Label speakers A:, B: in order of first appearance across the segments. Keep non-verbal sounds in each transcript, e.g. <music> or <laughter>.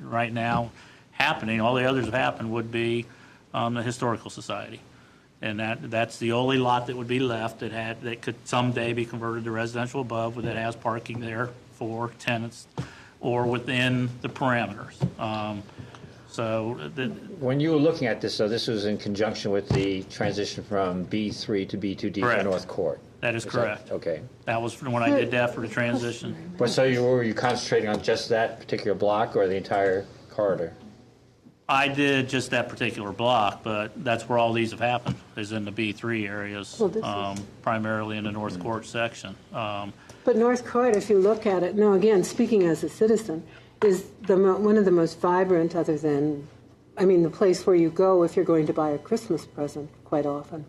A: right now happening, all the others that happen would be um, the Historical Society. And that, that's the only lot that would be left that had, that could someday be converted to residential above, that has parking there for tenants or within the parameters. Um, So uh, the,
B: When you were looking at this, though, this was in conjunction with the transition from B3 to B2D for
A: Correct.
B: North Court.
A: that is
B: Is that-
A: correct.
B: Okay.
A: That was when I did that for the transition.
B: But so you, were you concentrating on just that particular block or the entire corridor?
A: I did just that particular block, but that's where all these have happened, is in the B3 areas,
C: Well, this is-
A: um, primarily in the North Court section. Um,
C: But North Court, if you look at it, now again, speaking as a citizen, is the mo- one of the most vibrant, other than, I mean, the place where you go if you're going to buy a Christmas present quite often.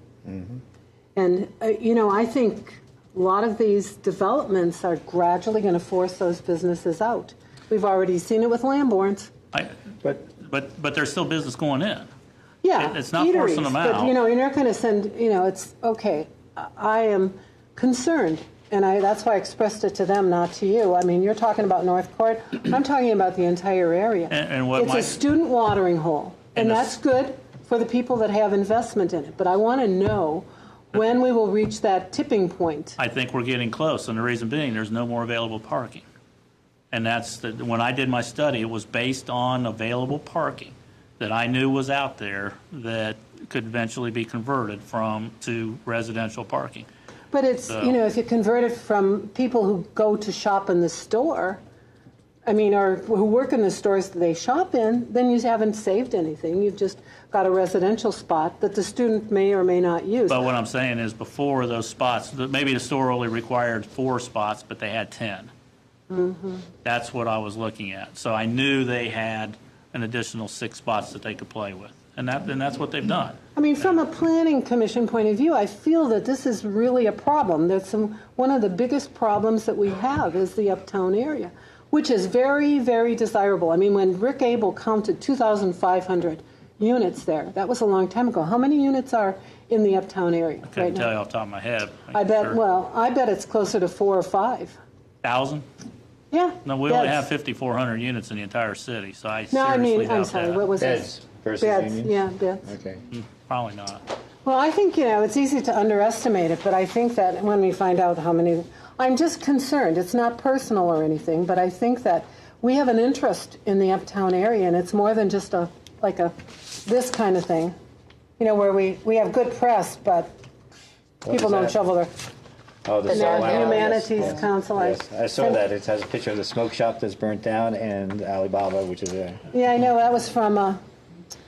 C: And uh, you know, I think a lot of these developments are gradually going to force those businesses out. We've already seen it with Lamborns.
A: I-
B: But
A: But, but there's still business going in.
C: Yeah,
A: It- it's not forcing them
C: eateries,
A: out.
C: But you know, you're not going to send. You know, it's okay. I- I am concerned, and I that's why I expressed it to them, not to you. I mean, you're talking about North Court. I'm talking about the entire area.
A: And- and what
C: it's
A: my-
C: a student watering hole, and,
A: And the
C: that's
A: s-
C: good for the people that have investment in it. But I want to know when we will reach that tipping point.
A: I think we're getting close, and the reason being, there's no more available parking. And that's, the- when I did my study, it was based on available parking that I knew was out there that could eventually be converted from, to residential parking.
C: But it's you know, if you convert it from people who go to shop in the store, I mean, or who work in the stores that they shop in, then you haven't saved anything. You've just got a residential spot that the student may or may not use.
A: But what I'm saying is before those spots, th- maybe the store only required four spots, but they had 10.
C: Mm-hmm.
A: That's what I was looking at. So I knew they had an additional six spots that they could play with. And that, and that's what they've done.
C: I mean, from a planning commission point of view, I feel that this is really a problem. That's some, one of the biggest problems that we have is the uptown area, which is very, very desirable. I mean, when Rick Abel counted 2,500 units there, that was a long time ago. How many units are in the uptown area right
A: Couldn't tell you
C: now?
A: off the top of my head.
C: I bet.
A: Sure.
C: Well, I bet it's closer to four or five.
A: Thousand?
C: Yeah.
A: No, we only
C: beds.
A: have 5,400 units in the entire city, so I
C: No, I
A: seriously
C: mean, I'm
A: doubt
C: sorry. What
A: that.
C: was
B: beds
C: it?
B: versus
C: Beds.
B: unions?
C: Yeah, beds.
B: Okay.
A: Probably not.
C: Well, I think, you know, it's easy to underestimate it, but I think that when we find out how many, I'm just concerned. It's not personal or anything, but I think that we have an interest in the uptown area, and it's more than just a, like a, this kind of thing. You know, where we, we have good press, but people
B: is
C: don't
B: that?
C: shovel their,
B: Oh, the
C: And there's
B: Solana-
C: Humanities
B: yes, yes,
C: Council, I-
B: yes. I saw that. It has a picture of the smoke shop that's burnt down and Alibaba, which is a,
C: yeah, I know, that was from, uh,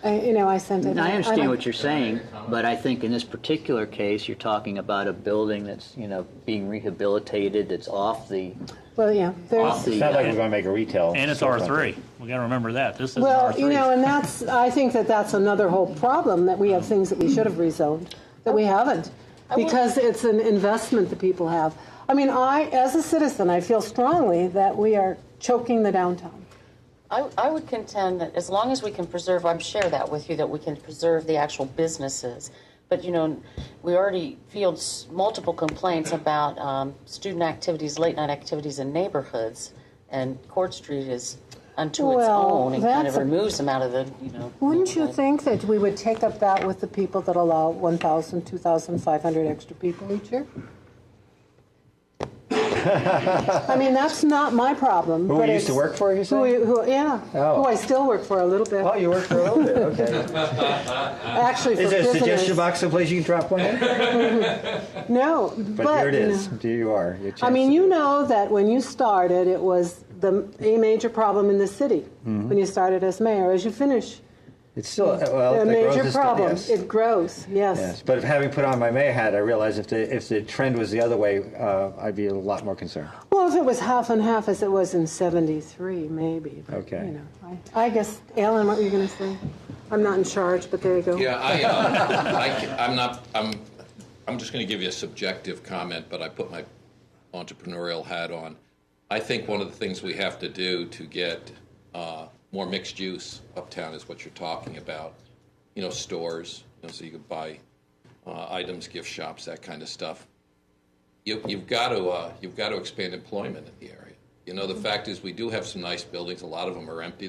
C: I, you know, I sent it.
D: And I understand
C: don't-
D: what you're saying, but I think in this particular case, you're talking about a building that's, you know, being rehabilitated, that's off the,
C: Well, yeah,
D: off
C: there's.
D: the.
B: it's not like we're going to make a retail.
A: And it's
B: storefront.
A: R3. We got to remember that. This is an
C: Well,
A: R3.
C: you know, and that's, I think that that's another whole problem, that we have things that we should have rezoned, that we haven't, because it's an investment that people have. I mean, I, as a citizen, I feel strongly that we are choking the downtown.
E: I, I would contend that as long as we can preserve, I'm share that with you, that we can preserve the actual businesses. But, you know, we already field s- multiple complaints about um, student activities, late night activities in neighborhoods, and Court Street is unto its
C: Well,
E: own and kind of
C: that's a-
E: removes them out of the, you know.
C: Wouldn't you
E: neighborhood.
C: think that we would take up that with the people that allow 1,000, 2,500 extra people each
B: <laughs>
C: year? I mean, that's not my problem.
B: Who
C: but
B: we used to
C: it's-
B: work for, you
C: Who,
B: said?
C: who- yeah,
B: Oh.
C: who I still work for a little bit,
B: Oh, you work for a little bit,
C: <laughs>
B: okay.
C: actually for
B: Is there a
C: prisoners.
B: suggestion box someplace you can drop one in?
C: No, but.
B: But here it
C: you know.
B: is. Here you are. Your
C: I
B: chance
C: mean,
B: to
C: you
B: do it.
C: know that when you started, it was the a major problem in the city
B: Mm-hmm.
C: when you started as mayor. As you finish,
B: It's still well,
C: a
B: the growth
C: major
B: is still-
C: problem.
B: yes.
C: It grows. Yes.
B: Yes, but if having put on my mayor hat, I realized if the if the trend was the other way, uh, I'd be a lot more concerned.
C: Well, if it was half and half as it was in '73, maybe. But,
B: Okay.
C: You know, I, I guess, Alan, what were you going to say? I'm not in charge, but there you go.
F: Yeah, I, uh, I, ca- I'm not, I'm, I'm just going to give you a subjective comment, but I put my entrepreneurial hat on. I think one of the things we have to do to get uh, more mixed use uptown is what you're talking about. You know, stores, you know, so you could buy uh, items, gift shops, that kind of stuff you, you've got to uh, you've got to expand employment in the area. You know, the fact is we do have some nice buildings. A lot of them are empty.